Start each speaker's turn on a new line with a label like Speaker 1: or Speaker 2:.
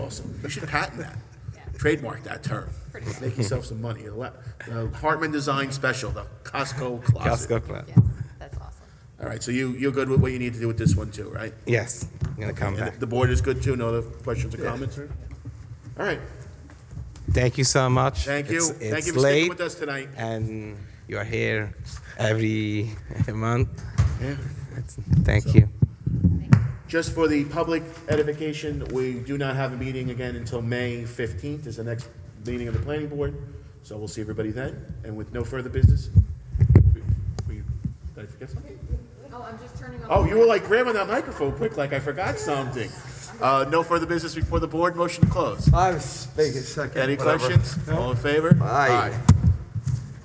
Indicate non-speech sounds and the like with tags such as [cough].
Speaker 1: awesome. You should patent that. Trademark that term. Make yourself some money. Ele- uh, Hartman Design Special, the Costco closet.
Speaker 2: Costco Club.
Speaker 3: Yes, that's awesome.
Speaker 1: All right, so you, you're good with what you need to do with this one too, right?
Speaker 2: Yes, I'm gonna come
Speaker 1: And
Speaker 2: back.
Speaker 1: the- the board is good too? No other questions or comments? All right,
Speaker 2: Thank you so much.
Speaker 1: thank you.
Speaker 2: It's-
Speaker 1: Thank
Speaker 2: it's
Speaker 1: you for sticking
Speaker 2: late
Speaker 1: with us tonight.
Speaker 2: And you are here every [laughs] month.
Speaker 1: Yeah.
Speaker 2: It's- Thank you.
Speaker 1: Just for the public edification, we do not have a meeting again until May 15th is the next meeting of the planning board. So we'll see everybody then. And with no further business, we- we- did I forget something?
Speaker 3: Oh, I'm just turning on.
Speaker 1: Oh, you were like grabbing that microphone quick, like I forgot something. Uh, No further business before the board, motion to close.
Speaker 4: I was making second.
Speaker 1: Any
Speaker 4: whatever.
Speaker 1: questions? All in favor?
Speaker 4: Aye.